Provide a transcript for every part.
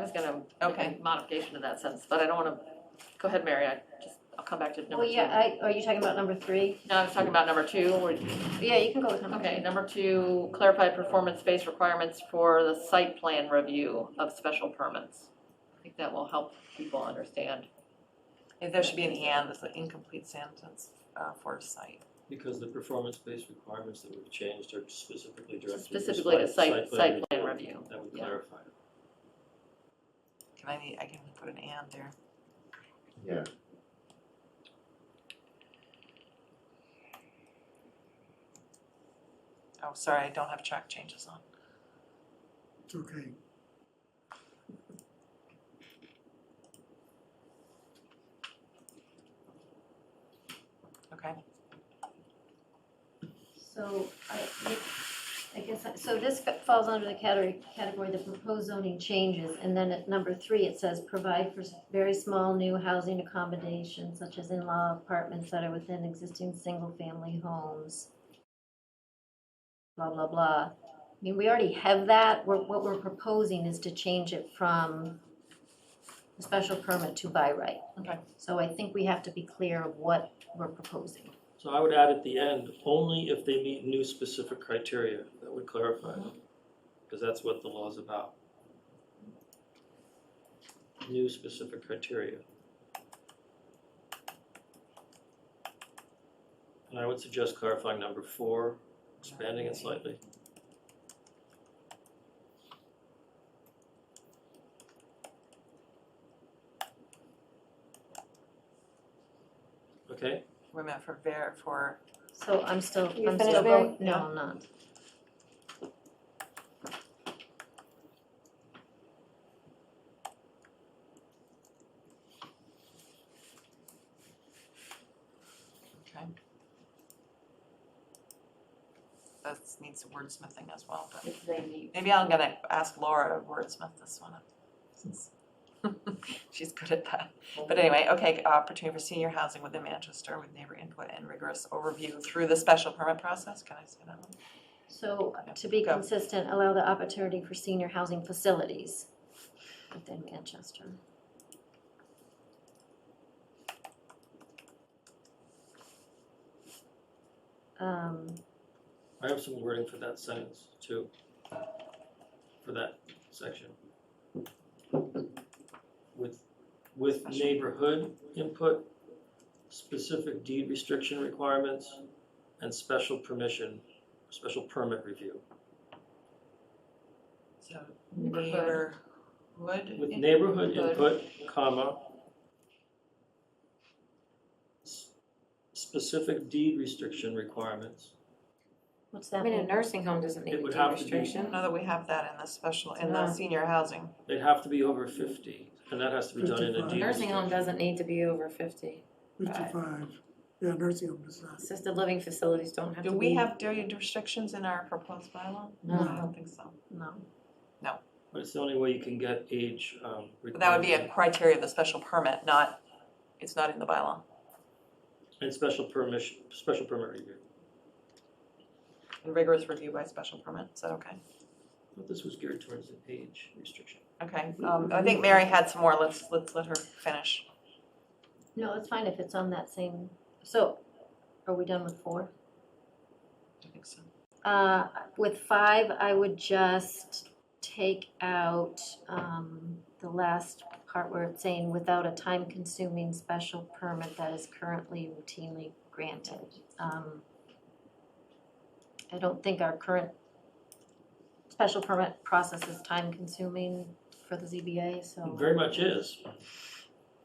was gonna make Okay. a modification in that sense, but I don't wanna, go ahead, Mary, I just, I'll come back to number two. Well, yeah, I, are you talking about number three? No, I was talking about number two, or- Yeah, you can go with number okay, three. number two, clarify performance-based requirements for the site plan review of special permits. I think that will help people understand. If there should be an and, it's an incomplete sentence uh, for site. Because the performance-based requirements that we've changed are specifically directed to Specifically to site, site plan review. review. That would yeah. clarify it. Can I, I can put an and there. Yeah. Oh, sorry, I don't have track changes on. It's okay. Okay. So I, I guess, so this falls under the category, category, the proposed zoning changes. And then at number three, it says provide for very small new housing accommodations such as in-law apartments that are within existing single-family homes. Blah, blah, blah. I mean, we already have that. We're, what we're proposing is to change it from a special permit to by right. Okay. So I think we have to be clear of what we're proposing. So I would add at the end, only if they meet new specific criteria, that would clarify it. Because that's what the law is about. New specific criteria. And I would suggest clarifying number four, expanding it slightly. Okay? We're meant for ver, for, So I'm still, You I'm finished, still Mary? voting, no, Yeah. I'm not. okay. That needs wordsmithing as well, but If they meet maybe I'm gonna ask Laura to wordsmith this one. up, since She's good at that. But anyway, okay, opportunity for senior housing within Manchester with neighbor input and rigorous overview through the special permit process. Can I say that one? So to be Go. consistent, allow the opportunity for senior housing facilities within Manchester. Um, I have some wording for that sentence too, for that section. With, with Special. neighborhood input, specific deed restriction requirements, and special permission, special permit review. So Neighborhood. neighborhood With in- neighborhood input, comma, s- specific deed restriction requirements, what's I that mean, a mean? nursing home doesn't need It a would deed have to be- restriction. Know that we have that in the special, in No. the senior housing. they'd have to be over fifty, and that has to be done in a Fifty-five. A deed nursing home restriction. doesn't need to be over fifty. Fifty-five, yeah, nursing home does not. Assisted living facilities don't have to Do be. we have deed restrictions in our proposed bylaw? I No. don't think so. No, But it's the only way you can get age, um, But that would be requirement. a criteria of the special permit, not, it's not in the bylaw. And special permission, special permit review. And rigorous review by special permit, is that okay? I thought this was geared towards an age restriction. Okay, um, I think Mary had some more, let's, let's let her finish. no, it's fine if it's on that same, so are we done with four? I think so. Uh, with five, I would just take out, um, the last part where it's saying without a time-consuming special permit that is currently routinely granted. Um, I don't think our current special permit process is time-consuming for the ZBA, It so. Very much is.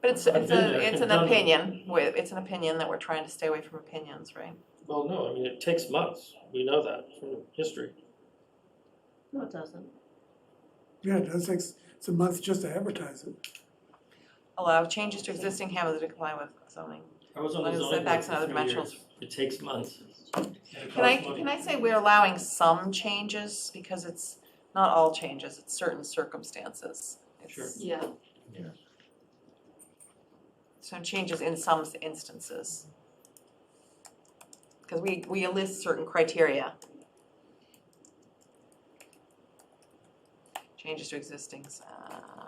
But it's, it's Been there, a, it's an done that. opinion, with- it's an opinion that we're trying to stay away from opinions, right? Well, no, I mean, it takes months. We know that from history. No, it doesn't. Yeah, it does take, s- it's a month just to advertise it. Allow changes to existing hamlets to comply with zoning. I was on the Well, zoning board setbacks for and three other years. It takes months. Can I, can I say we're allowing some changes, because it's not all changes, it's certain circumstances. It's Sure. Yeah, Some changes in some instances. Because we, we list certain criteria. Changes to existing, uh,